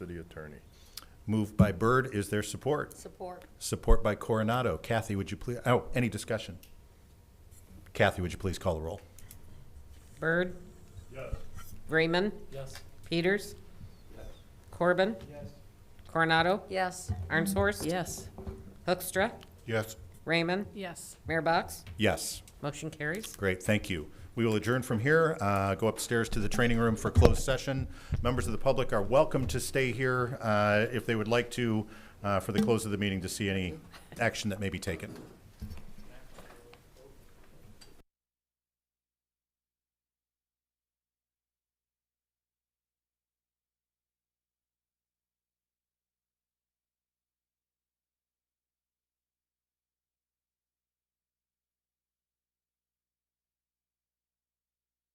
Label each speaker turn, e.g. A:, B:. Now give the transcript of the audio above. A: City Attorney. Moved by Byrd, is there support?
B: Support.
A: Support by Coronado. Kathy, would you please, oh, any discussion? Kathy, would you please call the roll?
B: Bird? Yes. Raymond?
C: Yes.
B: Peters? Corbin?
C: Yes.
B: Coronado?
D: Yes.
B: Arnshorst?
C: Yes.
B: Hoekstra?
A: Yes.
B: Raymond?
D: Yes.
B: Mayor Box?
A: Yes,
B: Motion carries.
A: great, thank you. We will adjourn from here, uh, go upstairs to the training room for closed session. Members of the public are welcome to stay here, uh, if they would like to, uh, for the close of the meeting to see any action that may be taken.